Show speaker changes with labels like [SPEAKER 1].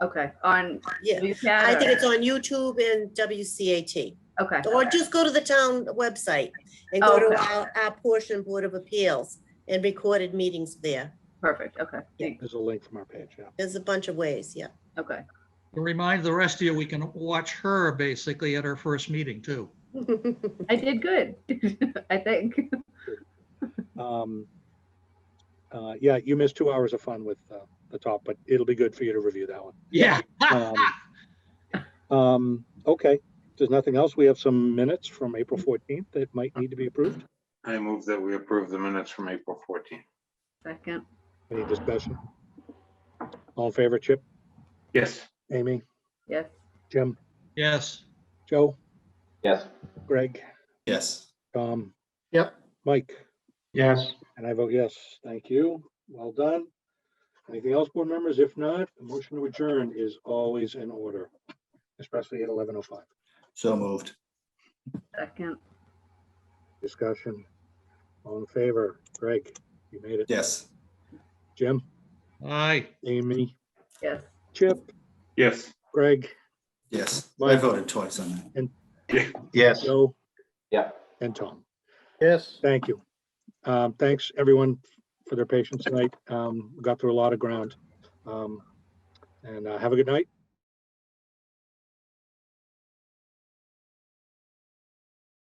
[SPEAKER 1] Okay, on
[SPEAKER 2] Yeah,
[SPEAKER 1] VCAT?
[SPEAKER 2] I think
[SPEAKER 1] or-
[SPEAKER 2] it's on YouTube and WCAT.
[SPEAKER 1] Okay,
[SPEAKER 2] Or just go to the town website and go to
[SPEAKER 1] Okay.
[SPEAKER 2] our, our portion Board of Appeals and recorded meetings there.
[SPEAKER 1] perfect, okay,
[SPEAKER 2] Yeah.
[SPEAKER 1] thank-
[SPEAKER 3] There's a link from our page, yeah.
[SPEAKER 2] There's a bunch of ways, yeah.
[SPEAKER 1] okay,
[SPEAKER 4] To Remind the rest of you, we can watch her basically at her first meeting too.
[SPEAKER 1] I did good, I think.
[SPEAKER 3] Um, uh, Yeah, you missed two hours of fun with uh, the top, but it'll be good for you to review that one.
[SPEAKER 4] Yeah.
[SPEAKER 3] Um, Um, Okay, if there's nothing else, we have some minutes from April 14th that might need to be approved.
[SPEAKER 5] I move that we approve the minutes from April 14th.
[SPEAKER 1] Second,
[SPEAKER 3] Any discussion? All in favor, Chip,
[SPEAKER 5] Yes.
[SPEAKER 3] Amy,
[SPEAKER 1] yes,
[SPEAKER 3] Jim,
[SPEAKER 4] Yes,
[SPEAKER 3] Joe,
[SPEAKER 5] Yes.
[SPEAKER 3] Greg,
[SPEAKER 6] Yes.
[SPEAKER 3] Tom?
[SPEAKER 6] Yep.
[SPEAKER 3] Mike?
[SPEAKER 5] Yes.
[SPEAKER 3] And I vote yes. Thank you. Well done. Anything else, board members? If not, a motion to adjourn is always in order, especially at eleven oh five.
[SPEAKER 6] So moved.
[SPEAKER 1] second,
[SPEAKER 3] Discussion. All in favor? Greg, you made it.
[SPEAKER 6] Yes.
[SPEAKER 3] Jim,
[SPEAKER 4] aye.
[SPEAKER 3] Amy,
[SPEAKER 1] yes.
[SPEAKER 3] Chip,
[SPEAKER 5] Yes.
[SPEAKER 3] Greg,
[SPEAKER 6] Yes. I
[SPEAKER 3] Mike.
[SPEAKER 6] voted twice on that.
[SPEAKER 7] Yes.
[SPEAKER 3] Joe,
[SPEAKER 5] Yeah.
[SPEAKER 3] and Tom.
[SPEAKER 7] Yes.
[SPEAKER 3] Thank you. Um, thanks, everyone, for their patience tonight. Um, we got through a lot of ground. Um, and uh, have a good night